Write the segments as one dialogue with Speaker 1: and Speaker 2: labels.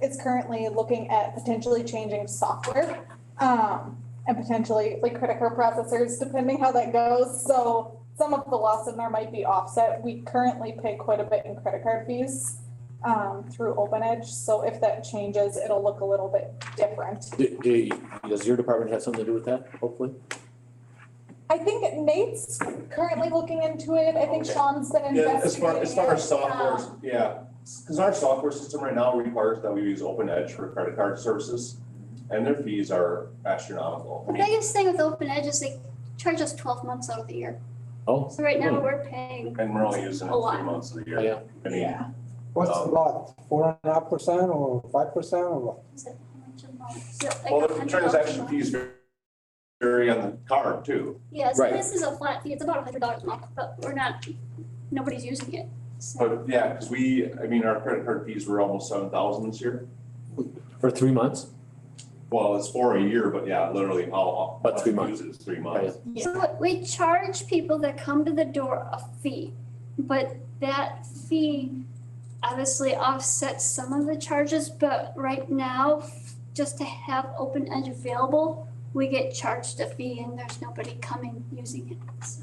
Speaker 1: is currently looking at potentially changing software. Um, and potentially like credit card processors, depending how that goes, so some of the loss in there might be offset. We currently pay quite a bit in credit card fees um, through Open Edge, so if that changes, it'll look a little bit different.
Speaker 2: Do, do, does your department have something to do with that, hopefully?
Speaker 1: I think Nate's currently looking into it, I think
Speaker 2: Okay.
Speaker 1: Sean's been
Speaker 3: Yeah, as
Speaker 1: investigating
Speaker 3: far, as far as
Speaker 1: it.
Speaker 3: software,
Speaker 1: Um,
Speaker 3: yeah, because our software system right now requires that we use Open Edge for credit card services, and their fees are astronomical. I
Speaker 4: The
Speaker 3: mean,
Speaker 4: biggest thing with Open Edge is they charge us twelve months out of the year.
Speaker 2: Oh,
Speaker 4: So right now, we're paying,
Speaker 3: And we're only using it
Speaker 4: A lot.
Speaker 3: three months of the year.
Speaker 2: yeah,
Speaker 3: I mean,
Speaker 1: Yeah,
Speaker 5: What's the lot, four and a half percent or five percent or what?
Speaker 4: is it how much a month? Is it like
Speaker 3: well,
Speaker 4: a
Speaker 3: the
Speaker 4: hundred
Speaker 3: transaction
Speaker 4: dollars a month?
Speaker 3: fees vary on the card too,
Speaker 4: Yeah, so
Speaker 2: Right.
Speaker 4: this is a flat fee, it's about a hundred dollars a month, but we're not, nobody's using it. So
Speaker 3: but yeah, because we, I mean, our credit card fees were almost seven thousand this year.
Speaker 2: for three months?
Speaker 3: Well, it's for a year, but yeah, literally how.
Speaker 2: But three
Speaker 3: much we
Speaker 2: months.
Speaker 3: Use it is three months.
Speaker 1: yeah,
Speaker 4: So we charge people that come to the door a fee, but that fee obviously offsets some of the charges, but right now, just to have Open Edge available, we get charged a fee and there's nobody coming using it, so.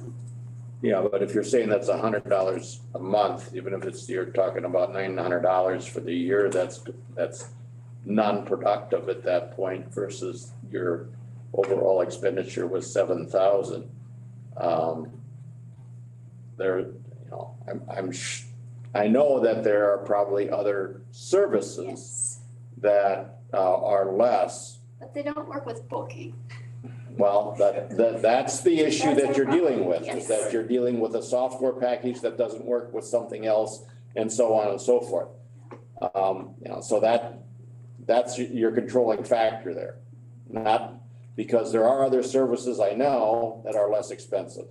Speaker 6: Yeah, but if you're saying that's a hundred dollars a month, even if it's, you're talking about nine hundred dollars for the year, that's, that's non-productive at that point versus your overall expenditure was seven thousand. Um, there, you know, I'm, I'm, sh- I know that there are probably other services
Speaker 4: Yes,
Speaker 6: that uh, are less.
Speaker 4: but they don't work with booking.
Speaker 6: Well, that, that, that's the issue that you're dealing with, is
Speaker 4: Yes.
Speaker 6: that you're dealing with a software package that doesn't work with something else and so on and so forth. Um, you know, so that, that's your- your controlling factor there. Not, because there are other services I know that are less expensive.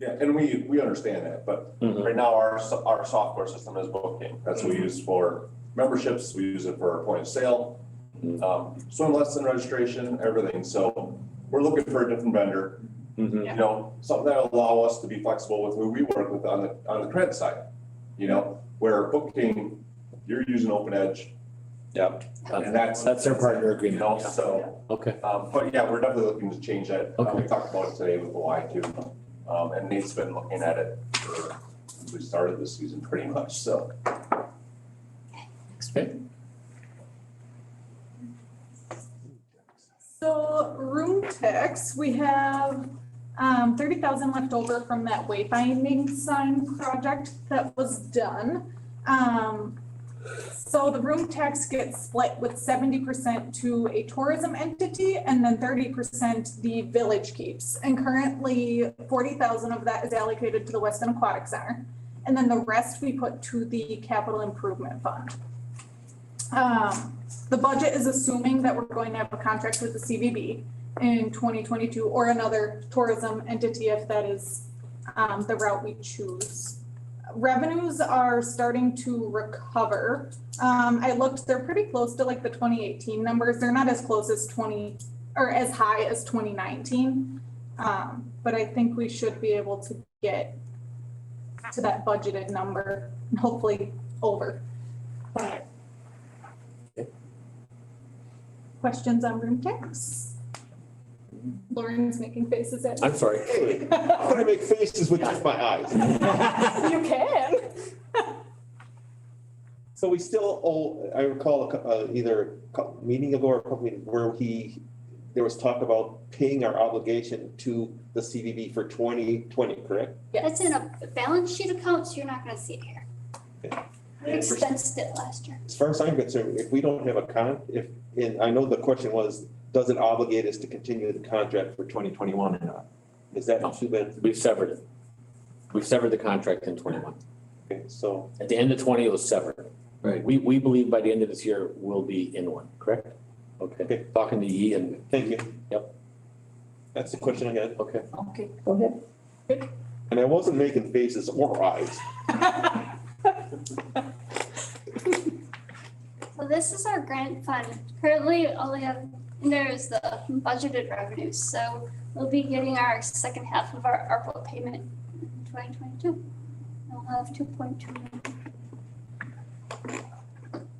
Speaker 3: Yeah, and we, we understand that, but
Speaker 6: Mhm.
Speaker 2: Mm-hmm.
Speaker 3: Right now, our, so- our software system is booking. That's what we use for memberships. We use it for point of sale,
Speaker 2: Mm-hmm.
Speaker 6: Mhm.
Speaker 3: um, swim lesson registration, everything. So we're looking for a different vendor,
Speaker 6: Mhm.
Speaker 2: Mm-hmm.
Speaker 3: you know, something that'll allow us to be flexible with who we work with on the, on the credit side. You know, where booking, you're using Open Edge
Speaker 6: Yep.
Speaker 3: and that's.
Speaker 2: That's their partner
Speaker 3: You know,
Speaker 2: agreement, yeah.
Speaker 3: so,
Speaker 2: okay,
Speaker 3: um, but yeah, we're definitely looking to change that. Uh, We
Speaker 2: Okay.
Speaker 3: talked about it today with the Y too. Um, and Nate's been looking at it for, we started this season pretty much, so.
Speaker 2: okay.
Speaker 1: so room tax, we have um thirty thousand left over from that wayfinding sign project that was done. Um, so the room tax gets split with seventy percent to a tourism entity and then thirty percent the village keeps. And currently forty thousand of that is allocated to the Weston Aquatic Center. And then the rest we put to the capital improvement fund. Um, the budget is assuming that we're going to have a contract with the CVB in twenty twenty-two or another tourism entity if that is um, the route we choose. Revenues are starting to recover. Um, I looked, they're pretty close to like the twenty eighteen numbers. They're not as close as twenty or as high as twenty nineteen. Um, but I think we should be able to get to that budgeted number and hopefully over. But Questions on room tax? Lauren's making faces at me.
Speaker 2: I'm sorry.
Speaker 7: Hey, I'm gonna make faces with just my eyes.
Speaker 1: You can.
Speaker 7: So we still, owe- I recall a cou- uh, either a cou- meeting ago or a couple meetings where he, there was talk about paying our obligation to the CVB for twenty twenty, correct?
Speaker 4: That's in a balance sheet account, so you're not gonna see it here. We expensed it last year.
Speaker 7: As far as I'm concerned, if we don't have a con, if, and I know the question was, does it obligate us to continue the contract for twenty twenty-one or not? Is that
Speaker 2: No.
Speaker 7: too bad?
Speaker 2: We've severed it. We've severed the contract in twenty-one.
Speaker 7: Okay, so,
Speaker 2: At the end of twenty, it was severed.
Speaker 8: Right.
Speaker 2: We, we believe by the end of this year, we'll be in one, correct? Okay,
Speaker 7: Okay.
Speaker 2: talking to Yi and,
Speaker 7: thank you.
Speaker 2: Yep.
Speaker 7: That's the question I had.
Speaker 2: okay.
Speaker 1: Okay.
Speaker 7: And I wasn't making faces or eyes.
Speaker 4: So this is our grant fund. Currently, all we have in there is the budgeted revenues, so we'll be getting our second half of our ARPA payment in twenty twenty-two. We'll have two point two million.